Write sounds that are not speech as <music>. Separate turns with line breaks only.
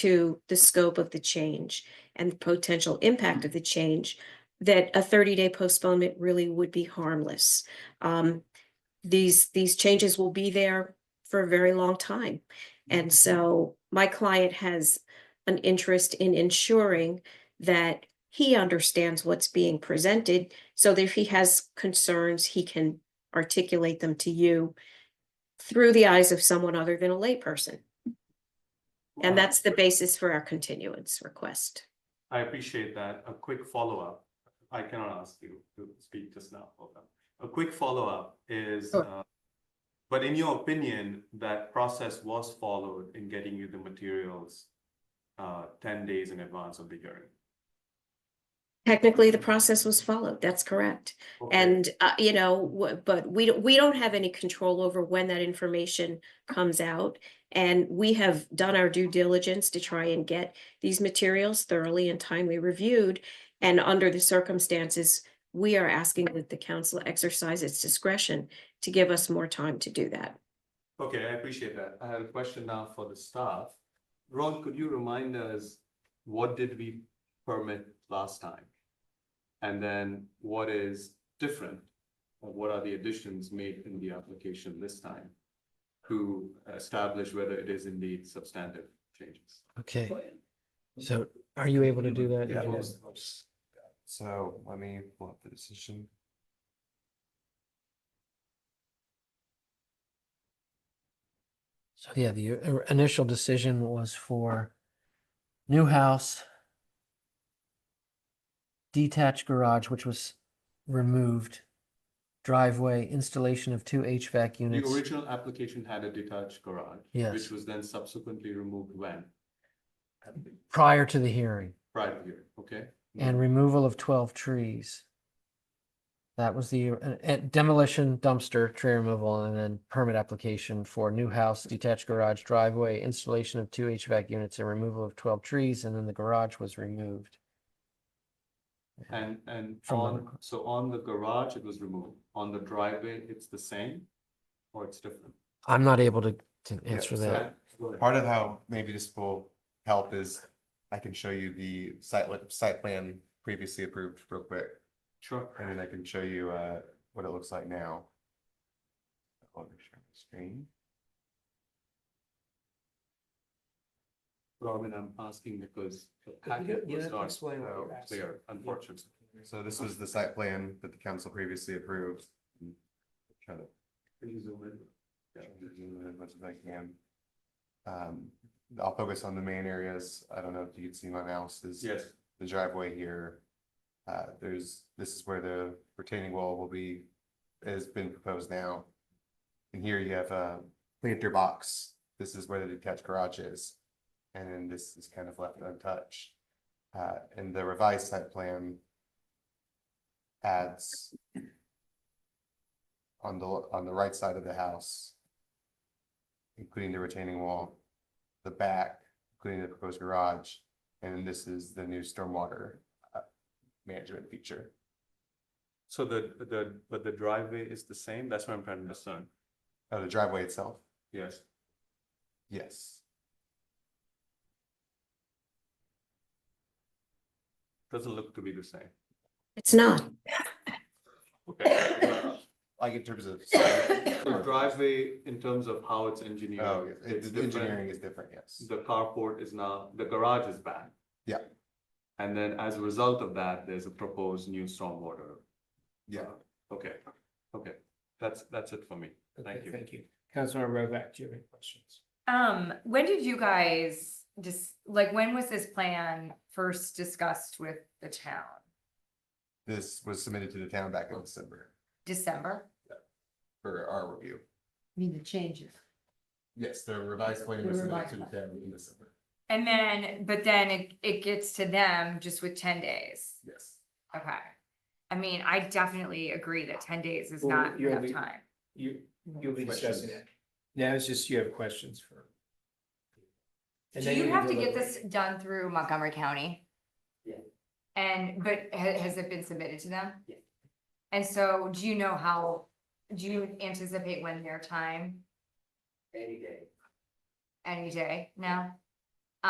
to the scope of the change and the potential impact of the change, that a thirty-day postponement really would be harmless. Um, these, these changes will be there for a very long time. And so my client has an interest in ensuring that he understands what's being presented so that if he has concerns, he can articulate them to you through the eyes of someone other than a layperson. And that's the basis for our continuance request.
I appreciate that. A quick follow-up. I cannot ask you to speak just now. Hold on. A quick follow-up is,
Sure.
uh, but in your opinion, that process was followed in getting you the materials uh, ten days in advance of the hearing?
Technically, the process was followed. That's correct.
Okay.
And, uh, you know, wh- but we, don't- we don't have any control over when that information comes out. And we have done our due diligence to try and get these materials thoroughly and timely reviewed. And under the circumstances, we are asking that the council exercise its discretion to give us more time to do that.
Okay, I appreciate that. I have a question now for the staff. Ron, could you remind us, what did we permit last time? And then what is different? Or What are the additions made in the application this time? To establish whether it is indeed substantive changes?
Okay, so are you able to do that?
Yeah,
Gina?
most- most- So let me pull up the decision.
So yeah, the uh, initial decision was for new house, detached garage, which was removed, driveway, installation of two HVAC
The
units.
original application had a detached garage.
Yes,
Which was then subsequently removed when?
prior to the hearing
Prior year, okay?
and removal of twelve trees. That was the uh, uh, demolition dumpster, tree removal, and then permit application for new house, detached garage, driveway, installation of two HVAC units and removal of twelve trees, and then the garage was removed.
And, and
From the
on,
request.
so on the garage, it was removed. On the driveway, it's the same? Or it's different?
I'm not able to, to
Yeah,
answer
so
that.
Go ahead.
Part of how maybe this will help is I can show you the site, li- site plan previously approved real quick.
Sure.
And then I can show you uh what it looks like now. Let me share my Screen.
Robin, I'm asking because the packet was not so clear, unfortunately.
So this was the site plan that the council previously approved. Mm. Try to
Can you zoom in?
Yeah, we'll do it as much as I can. Um, I'll focus on the main areas. I don't know if you can see my mouse is.
Yes,
The driveway here. Uh, there's, this is where the retaining wall will be, has been proposed now. And here you have a planter box. This is where the detached garage is. And then this is kind of left untouched. Uh, and the revised site plan adds on the, on the right side of the house, including the retaining wall, the back, including the proposed garage, and this is the new stormwater uh, management feature.
so the, the, but the driveway is the same? That's what I'm trying to discern.
Oh, the driveway itself?
Yes.
Yes.
Doesn't look to be the same.
It's not.
Okay.
<coughs> Like in terms of.
<coughs> The driveway, in terms of how it's engineered.
Oh, yeah,
it's
it- the
different.
engineering is different, yes.
The carport is now, the garage is back.
Yeah.
And then as a result of that, there's a proposed new stormwater.
Yeah.
Okay, okay. That's, that's it for me. Thank you.
Thank you. Councilor Rovak, do you have any questions?
Um, when did you guys just, like, when was this plan first discussed with the town?
This was submitted to the town back in December
December?
for our review.
I mean, the changes.
Yes, the revised plan
The
was submitted
revised
to the
plan.
town in December.
And then, but then it, it gets to them just with ten days.
Yes.
Okay. I mean, I definitely agree that ten days is
Well,
not
you're
enough
the-
time.
You, you'll be
Questions?
discussing it. Now it's just you have questions for. and
Do
then
you
you're
have to
gonna
get this done through Montgomery County?
Yeah.
And, but ha- has it been submitted to them?
Yeah.
And so do you know how, do you anticipate when their time?
deliberate
Any
Any day.
day now?